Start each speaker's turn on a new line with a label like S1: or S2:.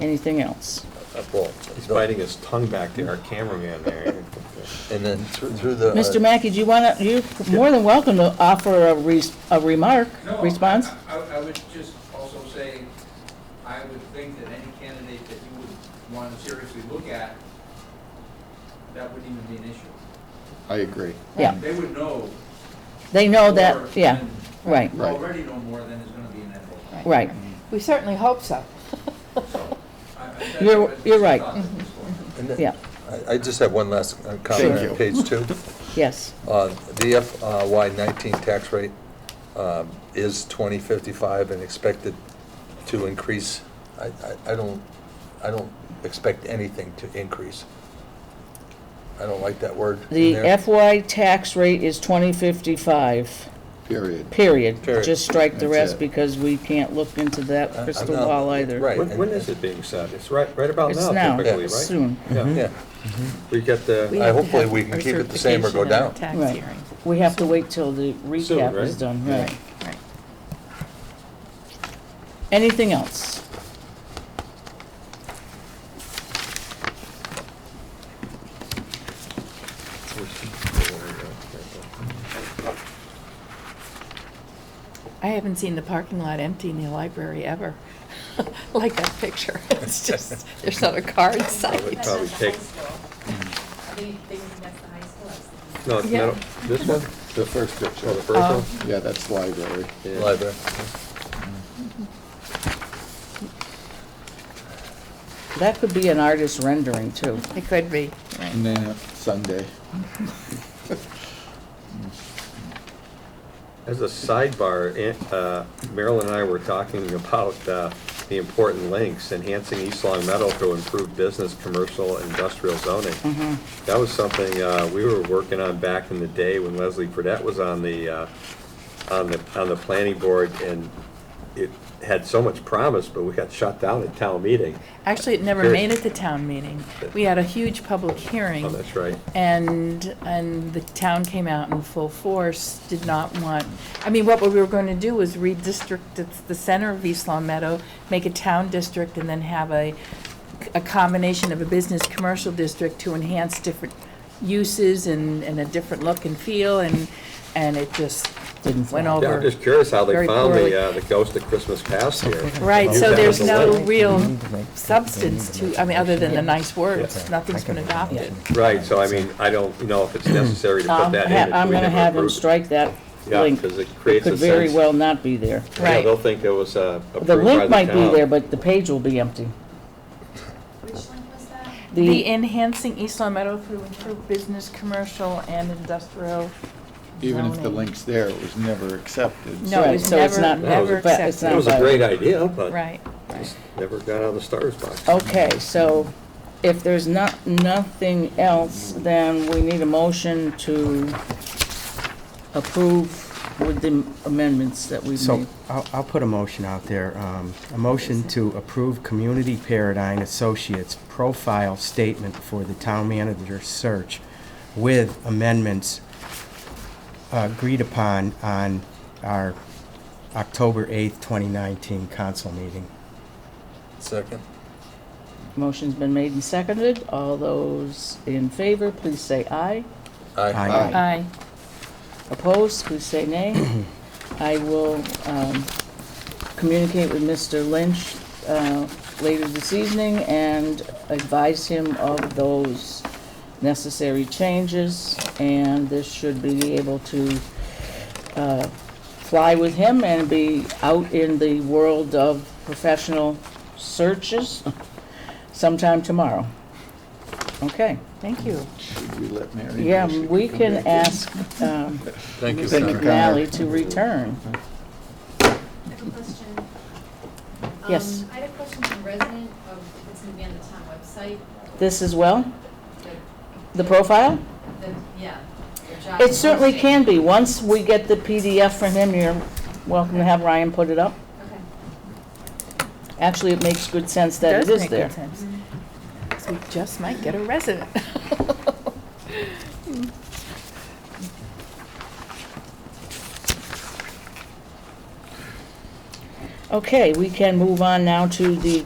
S1: Anything else?
S2: Well,
S3: He's
S2: he's
S3: biting
S2: biting his tongue back there, our cameraman there.
S3: And then through through the. uh,
S1: Mr. Mackey, do you want to, you're more than welcome to offer a res- a remark,
S4: No,
S1: response?
S4: I, I I would just also say, I would think that any candidate that you would want to seriously look at, that wouldn't even be an issue.
S5: I agree.
S1: Yeah,
S4: They would know.
S1: they know
S4: more
S1: that, yeah,
S4: than-
S1: right,
S5: Right.
S4: Already know more than is going to be in that book.
S1: right.
S6: We certainly hope so.
S4: I- I- that's
S1: You're-
S4: what
S1: you're
S4: I
S1: right. Mm-hmm.
S4: thought at this point.
S3: and then-
S1: yeah.
S3: I- I just have one last uh,
S5: Thank
S3: comment
S5: you.
S3: on page two.
S1: Yes,
S3: Uh, The FY nineteen tax rate um, is twenty fifty-five and expected to increase. I, I, I don't, I don't expect anything to increase. I don't like that word. in
S1: the
S3: there.
S1: FY tax rate is 2055,
S5: Period.
S1: period.
S3: Period.
S1: Just strike the
S5: That's
S1: rest
S5: it.
S1: because we can't look into
S3: I-
S1: that
S3: I'm
S1: crystal
S3: not-
S1: ball either.
S3: Right.
S2: When, when is it being set? It's right, right about
S1: It's
S2: now
S1: now,
S2: typically, right?
S1: soon. Mm-hmm.
S2: Yeah,
S3: Yeah,
S2: we get
S7: We
S2: the,
S3: I-
S7: have to
S3: hopefully
S7: have
S3: we can
S7: our
S3: keep it the same or go
S7: certification of
S1: down. Right.
S7: Tax hearing.
S1: We have to wait till the recap is
S2: right?
S1: done,
S2: Yeah.
S1: right.
S7: Right.
S1: Anything else?
S7: I haven't seen the parking lot empty in the library ever, like that picture. It's just, there's not a car in
S2: Probably-
S7: sight.
S2: probably take-
S8: They, they, that's the high school. I was thinking.
S2: no, it's
S7: Yeah.
S2: not, this one?
S5: The first
S2: Oh,
S5: picture.
S2: the first
S1: Uh,
S2: one?
S5: Yeah, that's library.
S2: Yeah.
S3: library.
S1: That could be an artist rendering too.
S7: It could be, right.
S5: And then Sunday.
S2: As a sidebar, Aunt- uh, Marilyn and I were talking about uh, the important links, enhancing East Long Meadow to improve business, commercial, industrial zoning.
S7: Mm-hmm.
S2: That was something uh, we were working on back in the day when Leslie Fredette was on the, uh, on the, on the planning board, and it had so much promise, but we got shut down at town meeting.
S7: Actually, it never
S2: Very-
S7: made it to town meeting. We had a huge public hearing.
S2: Oh, that's right.
S7: And, and the town came out in full force, did not want, I mean, what we were going to do was redistrict it- the center of East Long Meadow, make a town district, and then have a, a combination of a business commercial district to enhance different uses and, and a different look and feel, and, and it just
S1: Didn't
S7: went
S1: fly.
S7: over.
S2: Yeah, I'm just curious how they
S7: Very
S2: found
S7: poorly.
S2: the, uh, the ghost of Christmas past here.
S7: Right,
S2: You
S7: so
S2: have
S7: there's
S2: the
S7: no
S2: link.
S7: real substance to, I mean, other than the nice
S2: Yeah.
S7: words, nothing's been adopted.
S2: Right, so I mean, I don't know if it's necessary to put
S1: Um,
S2: that in.
S1: ha-
S2: if
S1: I'm
S2: we
S1: gonna
S2: never
S1: have him
S2: approved it.
S1: strike that
S2: Yeah,
S1: link.
S2: 'cause it creates a
S1: Could very
S2: sense-
S1: well not be there.
S2: Yeah,
S7: Right.
S2: they'll think it was uh, approved by
S1: The
S2: the
S1: link might be
S2: town.
S1: there, but the page will be empty.
S8: Which link was that?
S7: The enhancing East Long Meadow through improved business, commercial, and industrial.
S5: Even if the
S7: zoning.
S5: link's there, it was never accepted.
S7: No,
S1: Right,
S7: it was
S1: so it's
S7: never,
S1: not-
S2: but
S7: never
S1: it's
S7: accepted.
S1: not
S2: It was a
S1: by-
S2: great idea, but
S7: Right, right.
S2: never got out of the starter's box.
S1: Okay, so if there's not, nothing else, then we need a motion to approve with the amendments that we've
S9: So
S1: made.
S9: I'll, I'll put a motion out there, um, a motion to approve Community Paradigm Associates profile statement for the town manager search with amendments uh, agreed upon on our October 8th, 2019 council meeting.
S3: Second.
S1: Motion's been made and seconded. All those in favor, please say aye.
S3: Aye.
S5: Aye.
S7: Aye.
S1: Opposed, please say nay. I will um, communicate with Mr. Lynch uh, later this evening and advise him of those necessary changes, and this should be able to uh, fly with him and be out in the world of professional searches sometime tomorrow. Okay,
S7: Thank you.
S5: Should we let Mary? know
S1: yeah,
S5: she
S1: we
S5: come
S1: can
S5: back in?
S1: ask um,
S3: Thank you,
S1: Mr.
S5: Thank you,
S3: Senator.
S1: McNally
S5: Connor.
S1: to return.
S8: I have a question.
S1: Yes.
S8: Um, I had a question from a resident of, if it's gonna be on the town website,
S1: This as well,
S8: the,
S1: the profile?
S8: the, yeah, the job.
S1: It certainly can
S8: posting.
S1: be. Once we get the PDF from him, you're welcome to have Ryan put it up.
S8: Okay.
S1: Actually, it makes good sense that
S7: Does
S1: it is
S7: make good
S1: there.
S7: sense.
S8: Mm-hmm.
S7: 'Cause we just might get a resident.
S1: Okay, we can move on now to the